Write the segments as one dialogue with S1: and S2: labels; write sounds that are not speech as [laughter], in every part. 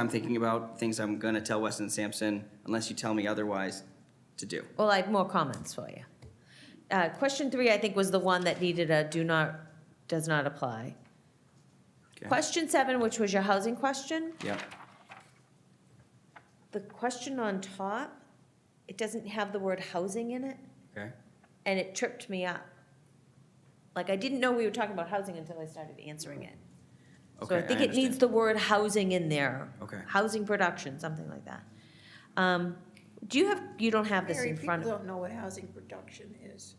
S1: I'm thinking about, things I'm gonna tell Weston Sampson, unless you tell me otherwise, to do.
S2: Well, I have more comments for you. Uh, Question three, I think, was the one that needed a do not, does not apply.
S1: Okay.
S2: Question seven, which was your housing question,
S1: Yep,
S2: the question on top, it doesn't have the word housing in it,
S1: okay,
S2: and it tripped me up. Like, I didn't know we were talking about housing until I started answering it. So
S1: okay,
S2: I think it needs
S1: understand.
S2: the word housing in there.
S1: Okay.
S2: Housing production, something like that. Um, Do you have, you don't have this
S3: Mary,
S2: in front of
S3: People don't know what housing production is.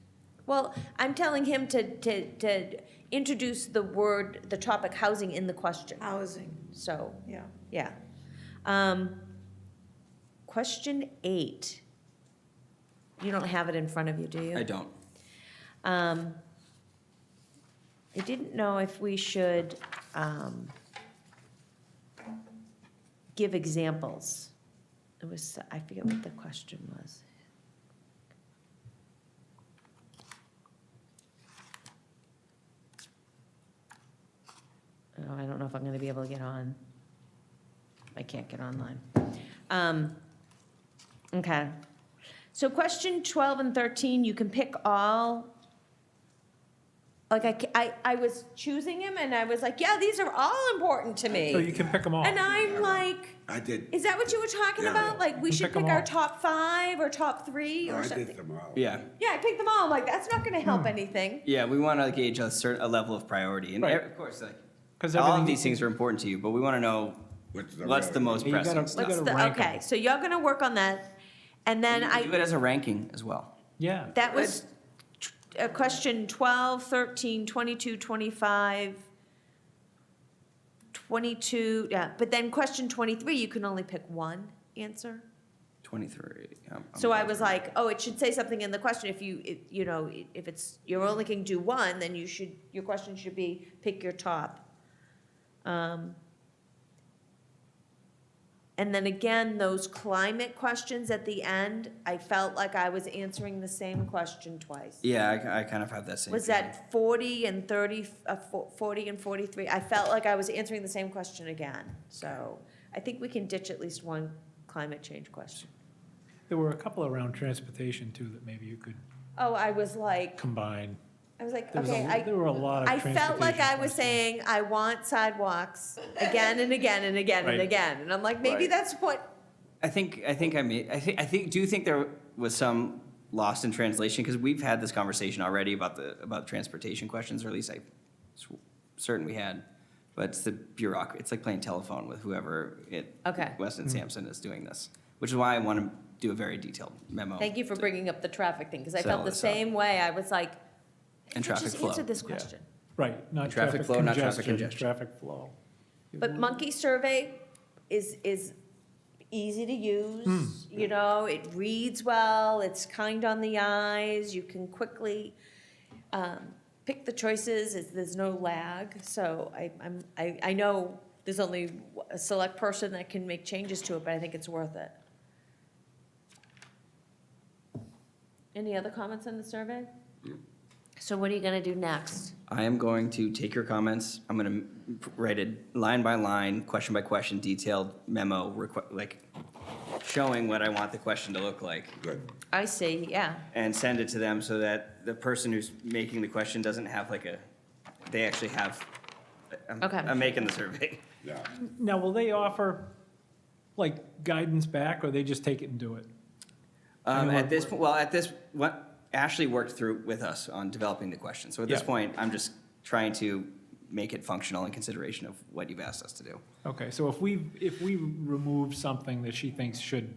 S2: Well, I'm telling him to, to, to introduce the word, the topic housing in the question,
S3: Housing,
S2: so,
S3: yeah.
S2: yeah. Um, Question eight. You don't have it in front of you, do you?
S1: I don't,
S2: Um, I didn't know if we should, um, give examples. It was, I forget what the question was. Oh, I don't know if I'm gonna be able to get on. I can't get online. Um, okay. So question twelve and thirteen, you can pick all like I, ca- I, I was choosing him and I was like, yeah, these are all important to
S4: So you
S2: me.
S4: can pick them all.
S2: And I'm like,
S5: I did,
S2: is that what you were talking
S5: Yeah.
S2: about? Like, we
S4: You
S2: should
S4: pick 'em
S2: pick our
S4: all.
S2: top five or top three
S5: I
S2: or
S5: did
S2: something?
S5: them all.
S1: yeah,
S2: Yeah, I picked them all. I'm like, that's not gonna
S4: Hmm.
S2: help anything.
S1: yeah, we wanna gauge a certain, a level of priority, and e-
S4: Right.
S1: of course, like,
S4: 'Cause
S1: all of
S4: everything-
S1: these things are important to you, but we wanna know
S5: What's the
S1: what's the
S5: relevant-
S1: most
S4: You gotta-
S1: pressing
S4: you
S1: stuff.
S2: What's
S4: gotta
S2: the,
S4: rank 'em.
S2: okay, so y'all gonna work on that. And then
S1: And Do it
S2: I,
S1: as a ranking as well.
S4: Yeah.
S2: that was tw- uh, question 12, 13, 22, 25, 22, yeah. But then question 23, you can only pick one answer.
S1: Twenty-three. um, um,
S2: So I was like, oh, it should say something in the question, if you, if- you know, if it's, you're only can do one, then you should, your question should be, pick your top. Um, And then again, those climate questions at the end, I felt like I was answering the same question twice.
S1: Yeah, I, I kind of have that same.
S2: Was
S1: feeling.
S2: that forty and thirty, uh, fo- forty and forty-three? I felt like I was answering the same question again, so I think we can ditch at least one climate change question.
S4: There were a couple around transportation too that maybe you could
S2: Oh, I was like,
S4: combine.
S2: I was like,
S4: There was a-
S2: okay, I,
S4: There were a lot of
S2: I
S4: transportation.
S2: felt like I was
S4: questions.
S2: saying, I want sidewalks again and again and again and
S4: Right.
S2: again. And I'm like, maybe
S1: Right.
S2: that's what,
S1: I think I think I made I think I think do you think there was some lost in translation because we've had this conversation already about the about transportation questions or at least I s- certain we had, but it's the bureaucracy. It's like playing telephone with whoever it
S2: Okay.
S1: Weston Sampson is doing this, which is why I want to do a very detailed memo.
S2: thank you for bringing up the traffic thing, because I
S1: So
S2: felt the
S1: it's, uh,
S2: same way. I was like,
S1: And
S2: I
S1: traffic
S2: just
S1: flow,
S2: answered this
S1: yeah.
S2: question.
S4: Right, not
S1: Traffic
S4: traffic
S1: flow, not traffic
S4: congestion,
S1: congestion.
S4: traffic flow.
S2: But monkey survey is, is easy to use, you know, it reads well, it's kind on the eyes, you can quickly, um, pick the choices, it's, there's no lag, so I, I'm, I, I know there's only a select person that can make changes to it, but I think it's worth it. Any other comments on the survey? So what are you gonna do next?
S1: I am going to take your comments. I'm going to write a line by line, question by question, detailed memo, requ- like showing what I want the question to look like.
S5: Good.
S2: I see, yeah.
S1: and send it to them so that the person who's making the question doesn't have like a, they actually have, um, I'm,
S2: Okay.
S1: I'm making the survey.
S5: Yeah.
S4: Now, will they offer like guidance back or they just take it and do it?
S1: [laughs] Um,
S4: And
S1: at this,
S4: what-
S1: po- well, at this, what, Ashley worked through with us on developing the question. So at this
S4: Yeah.
S1: point, I'm just trying to make it functional in consideration of what you've asked us to do.
S4: Okay, so if we, if we remove something that she thinks should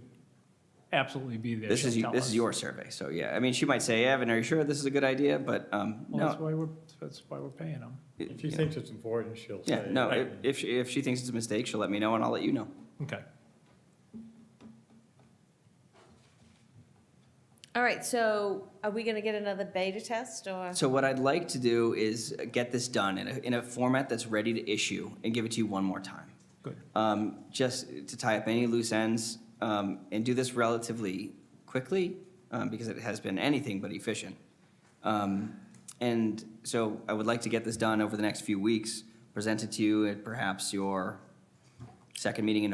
S4: absolutely be there,
S1: This is,
S4: she'll
S1: you-
S4: tell
S1: this is
S4: us.
S1: your survey, so yeah. I mean, she might say, Evan, are you sure this is a good idea? But, um,
S4: Well, that's
S1: no.
S4: why we're, that's why we're paying them.
S1: it-
S6: If she
S1: you know.
S6: thinks it's important, she'll say.
S1: Yeah, no,
S4: Right.
S1: if- if, she- if she thinks it's a mistake, she'll let me know and I'll let you know.
S4: Okay.
S2: All right, so are we gonna get another beta test or?
S1: So what I'd like to do is get this done in a, in a format that's ready to issue and give it to you one more time.
S4: Good.
S1: Um, just to tie up any loose ends, um, and do this relatively quickly, um, because it has been anything but efficient. Um, and so I would like to get this done over the next few weeks, present it to you at perhaps your second meeting in